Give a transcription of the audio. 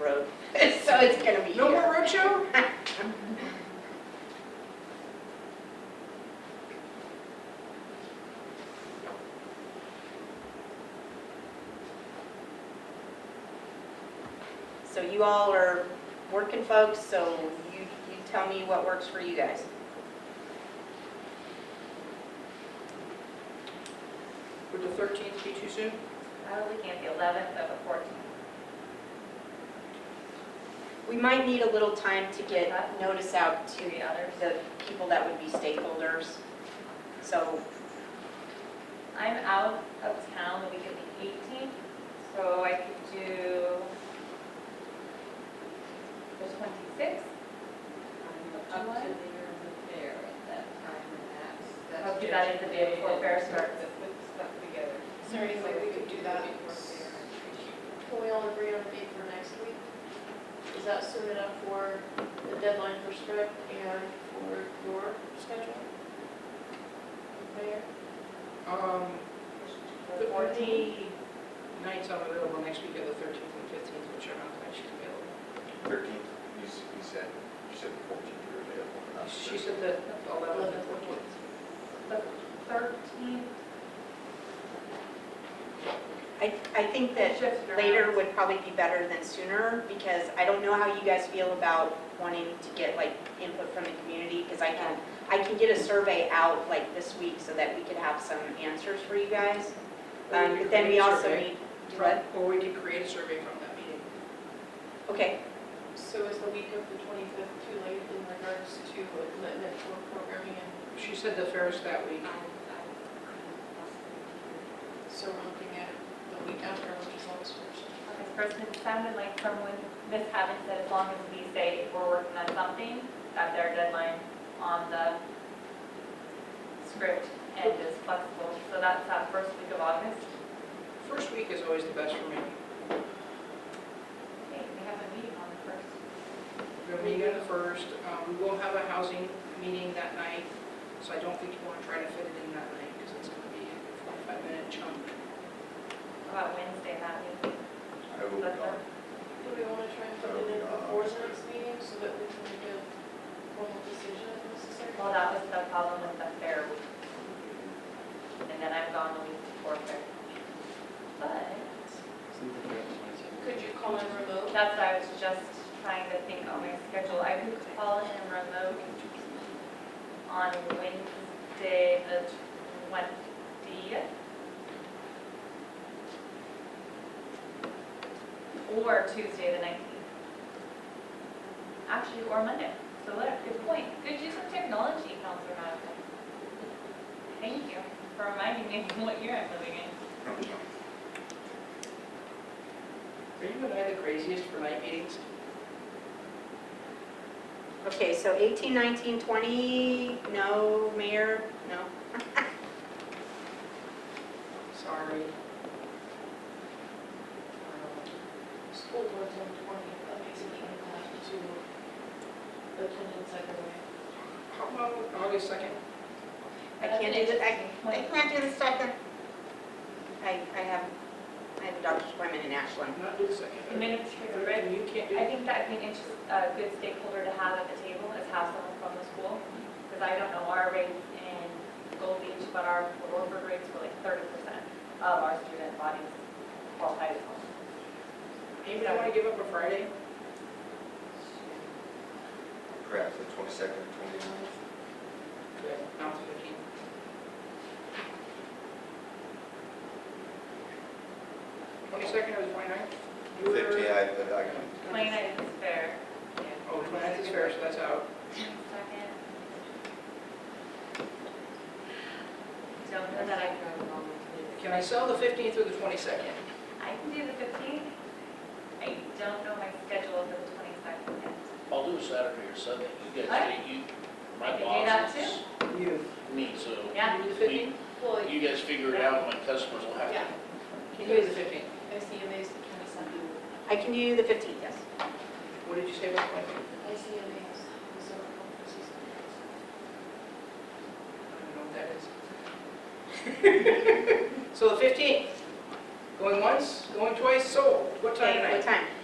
road, so it's gonna be No here. more roadshow? So you all are working folks, so you, you tell me what works for you guys. Would the 13th be too soon? Probably can't the 11th or the 14th. We might need a little time to get notice out to Do the others. the people that would be stakeholders. So I'm out of town the week of the 18th, so I could do the 26th. I'm up to the year of the fair at that time, and that's. that's Hope you got it the day before fair starts. That puts stuff together. Is there any way we could do that? Before fair. Can we all agree on a date for next week? Is that soon enough for the deadline for Strip and for your schedule? Mayor? Um, The The 14th. nights I'm available next week are the 13th and 15th, which are not the nights she's available. Thirteenth, you s- you said, you said the fourteenth you were available. not the She 13th. said the 11th and Uh, 14th. The 13th. I, I think that shifts around. later would probably be better than sooner, because I don't know how you guys feel about wanting to get like input from the community, because I can, I can get a survey out like this week so that we could have some answers for you guys. Um, But then we also need, what? Or we could create a survey from that meeting. Okay, So is the week of the 25th too late in regards to commitment for programming and She said the fair's that week. so we're looking at the week after, which is August 1st? Okay, Kristen, it sounded like someone, Ms. Haven said, as long as we say we're working on something, that's our deadline on the script and is flexible. So that's that first week of August. First week is always the best for me. Okay, we have a meeting on the first. We're gonna meet on the first, Um, we will have a housing meeting that night, so I don't think you want to try to fit it in that night, because it's going to be a 45-minute chunk. How About Wednesday that week. I will be That's gone. Do we want to try and put it in before the next meeting so that we can make a formal decision if necessary? Well, that was the problem with the fair week. And then I'm gone the week before fair. But Could you call in remote? that's why I was just trying to think on my schedule. I could call in remote on Wednesday, the twentieth. Or Tuesday, the nineteenth. Actually, or Monday. So what a good point. Good use of technology, Counselor Madison. Thank you for reminding me of what year I'm living in. Are you and I the craziest for night meetings? okay, so 18, 19, 20, no, mayor, no. Sorry. School board's on twenty, that makes it kind of hard to attendance either way. Um, How about August 2nd? I can't do the, I, I can't do the second. I, I have, I have a doctor's appointment in Ashland. Not do the 2nd. Administrative Third, and You can't do I it. think that'd be an interest, a good stakeholder to have at the table is have someone from the school, because I don't know our rates in Gold Beach, but our Orford rates were like thirty percent of our student bodies qualified as homeless. Anybody want to give up a Friday? Perhaps the twenty-second, twenty-ninth. Good. Not the 15th. Twenty-second or the 29th? You were- Fifty, I, but I can, Twenty-nine is fair. Oh, 29th is fair, so that's out. Second. Don't know that I can, Can I sell the 15th or the 22nd? I can do the fifteenth. I don't know my schedule for the twenty-second yet. I'll do a Saturday or Sunday, you guys, Alright. you, I my can do that boss is You. me, so Yeah. You do the 15th? Well, you guys figure it out, my customers will have to. Yeah. You do the 15th. I see amazed at twenty-seven. I can do the 15th, yes. What did you say about the 22nd? I see amazed, so conferences. I don't know what that is. So the 15th, going once, going twice, sold. What time Okay, What tonight? time?